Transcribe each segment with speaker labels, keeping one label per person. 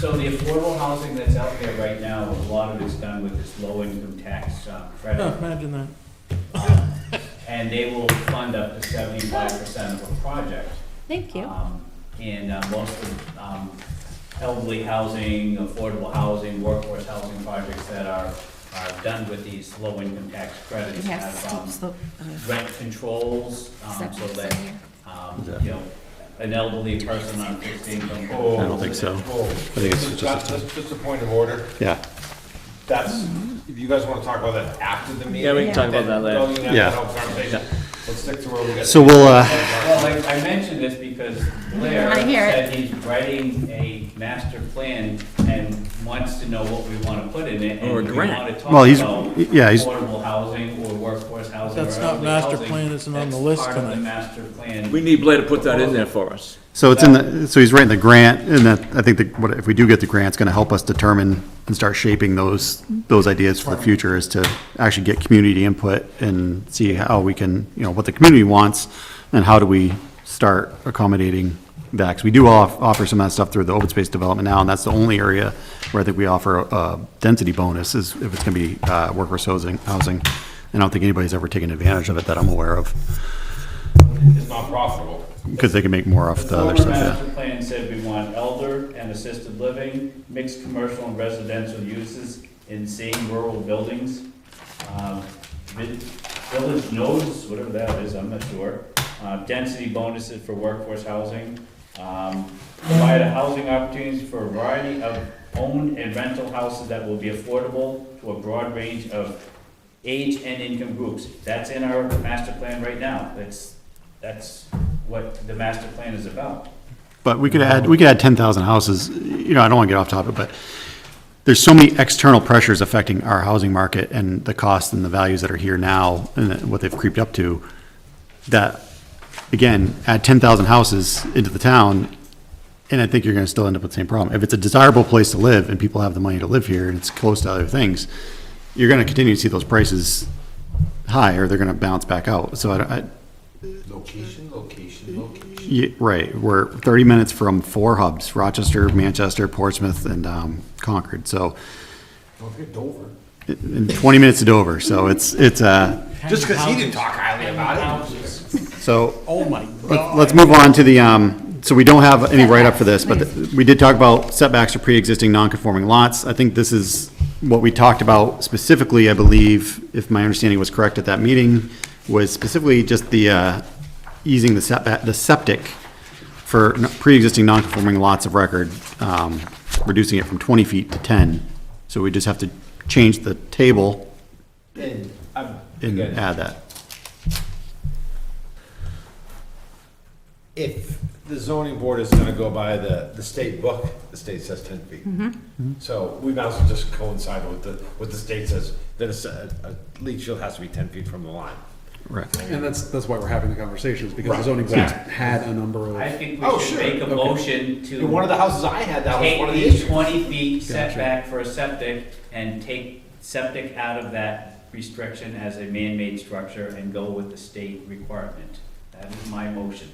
Speaker 1: affordable housing that's out there right now, a lot of it's done with this low-income tax uh,
Speaker 2: Oh,
Speaker 1: credit.
Speaker 2: imagine that.
Speaker 1: And they will fund up to seventy-five percent of a project.
Speaker 3: Thank you.
Speaker 1: Um, And uh, most of um, elderly housing, affordable housing, workforce housing projects that are, are done with these low-income tax
Speaker 3: We
Speaker 1: credits
Speaker 3: have
Speaker 1: have
Speaker 3: steep
Speaker 1: um,
Speaker 3: slope. uh,
Speaker 1: rent controls, um, so
Speaker 3: setbacks
Speaker 1: that,
Speaker 3: in here.
Speaker 1: um, you know, an elderly person on fixed income.
Speaker 4: Oh.
Speaker 5: I don't think so.
Speaker 4: Oh.
Speaker 5: think it's
Speaker 4: Just-
Speaker 5: just-
Speaker 4: Just just a point of order.
Speaker 5: Yeah,
Speaker 4: That's, if you guys want to talk about that after the meeting.
Speaker 2: Yeah, we can talk
Speaker 4: then
Speaker 2: about that
Speaker 4: don't
Speaker 2: later.
Speaker 4: even have
Speaker 5: Yeah.
Speaker 4: that whole conversation. Let's stick to where we got.
Speaker 5: so we'll, uh,
Speaker 1: Well, I, I mentioned this because Blair
Speaker 3: I hear it.
Speaker 1: said he's writing a master plan and wants to know what we want to put in it. and
Speaker 2: Or a
Speaker 1: we
Speaker 2: grant.
Speaker 1: wanna talk
Speaker 5: Well, he's-
Speaker 1: about
Speaker 5: yeah, he's-
Speaker 1: Affordable housing or workforce housing or
Speaker 2: That's not
Speaker 1: elderly
Speaker 2: master
Speaker 1: housing.
Speaker 2: plan, isn't on the
Speaker 1: That's
Speaker 2: list
Speaker 1: part of the
Speaker 2: tonight.
Speaker 1: master plan.
Speaker 2: We need Blair to put that in there for us.
Speaker 5: so it's in the, so he's writing the grant, and that, I think that, what- if we do get the grant, it's gonna help us determine and start shaping those, those ideas for the future, is to actually get community input and see how we can, you know, what the community wants, and how do we start accommodating that, 'Cause we do off, offer some of that stuff through the open space development now, and that's the only area where I think we offer a- a density bonus, is if it's gonna be, uh, workforce housing, housing. And I don't think anybody's ever taken advantage of it that I'm aware of.
Speaker 4: It's not profitable.
Speaker 5: Because they can make more off the
Speaker 1: former
Speaker 5: other stuff, yeah.
Speaker 1: master plan said we want elder and assisted living, mixed commercial and residential uses in same rural buildings. um, vi- Village nodes, whatever that is, I'm not sure. uh, Density bonuses for workforce housing. um, Provide a housing opportunities for a variety of owned and rental houses that will be affordable to a broad range of age and income groups. That's in our master plan right now. That's, that's what the master plan is about.
Speaker 5: But we could add, we could add ten thousand houses, you know, I don't wanna get off topic, but there's so many external pressures affecting our housing market and the costs and the values that are here now and that- what they've creeped up to, that, again, add ten thousand houses into the town, and I think you're gonna still end up with the same problem. If it's a desirable place to live and people have the money to live here and it's close to other things, you're gonna continue to see those prices high or they're gonna bounce back out. So I, don't- I,
Speaker 4: Location, location, location.
Speaker 5: Yeah, right, we're thirty minutes from four hubs, Rochester, Manchester, Portsmouth, and um, Concord, so,
Speaker 4: Don't forget Dover.
Speaker 5: and twenty minutes to Dover, so it's, it's, uh,
Speaker 4: Just because he didn't talk highly about it.
Speaker 5: so,
Speaker 2: Oh my
Speaker 5: let- let's move on to the, um, so we don't have any write-up for this, but the- we did talk about setbacks to pre-existing non-conforming lots. I think this is what we talked about specifically, I believe, if my understanding was correct at that meeting, was specifically just the, uh, easing the setback, the septic for n- pre-existing non-conforming lots of record, um, reducing it from 20 feet to 10. So we just have to change the table
Speaker 4: And I'm,
Speaker 5: and
Speaker 4: again,
Speaker 5: add that.
Speaker 4: if the zoning board is gonna go by the, the state book, the state says ten feet.
Speaker 2: Mm-hmm.
Speaker 4: Mm-hmm. So we might as well just coincide with the, what the state says, then it's a, a leach shield has to be ten feet from the line.
Speaker 5: Right.
Speaker 6: And that's, that's why we're having the conversations, because the zoning board
Speaker 4: Exactly.
Speaker 6: had a number of.
Speaker 1: I think
Speaker 4: Oh,
Speaker 1: we should
Speaker 4: sure.
Speaker 1: make a
Speaker 4: Okay.
Speaker 1: motion
Speaker 4: In one of
Speaker 1: to
Speaker 4: the houses I had, that was one
Speaker 1: take
Speaker 4: of the
Speaker 1: the
Speaker 4: issues.
Speaker 1: twenty feet setback for a septic and take septic out of that restriction as a man-made structure and go with the state requirement. That is my motion.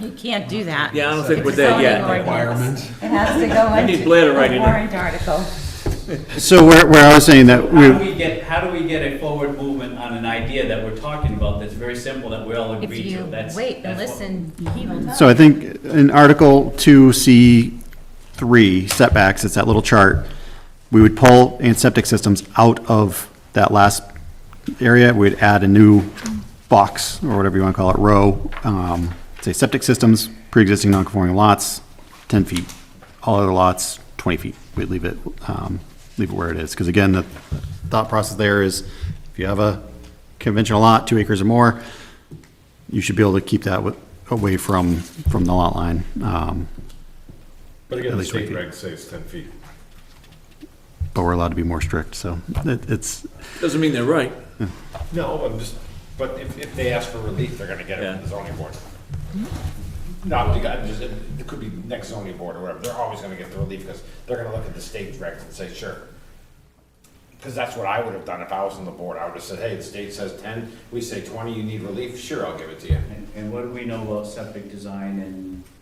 Speaker 3: You can't do that.
Speaker 2: Yeah, I don't think
Speaker 3: It's
Speaker 2: we're there
Speaker 3: zoning
Speaker 2: yet.
Speaker 3: ordinance.
Speaker 6: Requirement.
Speaker 3: It has to go
Speaker 2: I need
Speaker 3: into
Speaker 2: Blair to write
Speaker 3: the
Speaker 2: it.
Speaker 3: warrant article.
Speaker 5: So where, where I was saying that
Speaker 1: How do
Speaker 5: we,
Speaker 1: we get, how do we get a forward movement on an idea that we're talking about that's very simple, that we all
Speaker 3: If
Speaker 1: agree to?
Speaker 3: you
Speaker 1: That's-
Speaker 3: wait and
Speaker 1: that's what-
Speaker 3: listen, he will tell.
Speaker 5: so I think in Article 2C3 setbacks, it's that little chart, we would pull and septic systems out of that last area. We'd add a new box, or whatever you want to call it, row, um, say septic systems, pre-existing non-conforming lots, 10 feet. All other lots, 20 feet. We'd leave it, um, leave it where it is. Because again, the thought process there is, if you have a conventional lot, two acres or more, you should be able to keep that wa- away from, from the lot line. Um,
Speaker 4: But again,
Speaker 5: At
Speaker 4: the
Speaker 5: least twenty
Speaker 4: state
Speaker 5: feet.
Speaker 4: regs say it's ten feet.
Speaker 5: But we're allowed to be more strict, so it- it's,
Speaker 2: Doesn't mean they're right.
Speaker 4: No, I'm just, but if, if they ask for relief, they're gonna get it
Speaker 2: Yeah.
Speaker 4: from the zoning board. No, you got, just, it it could be next zoning board or whatever, they're always gonna get the relief, because they're gonna look at the state regs and say, sure. Because that's what I would have done if I was on the board, I would have said, hey, the state says ten, we say twenty, you need relief, sure, I'll give it to you.
Speaker 1: And- And what do we know about septic design and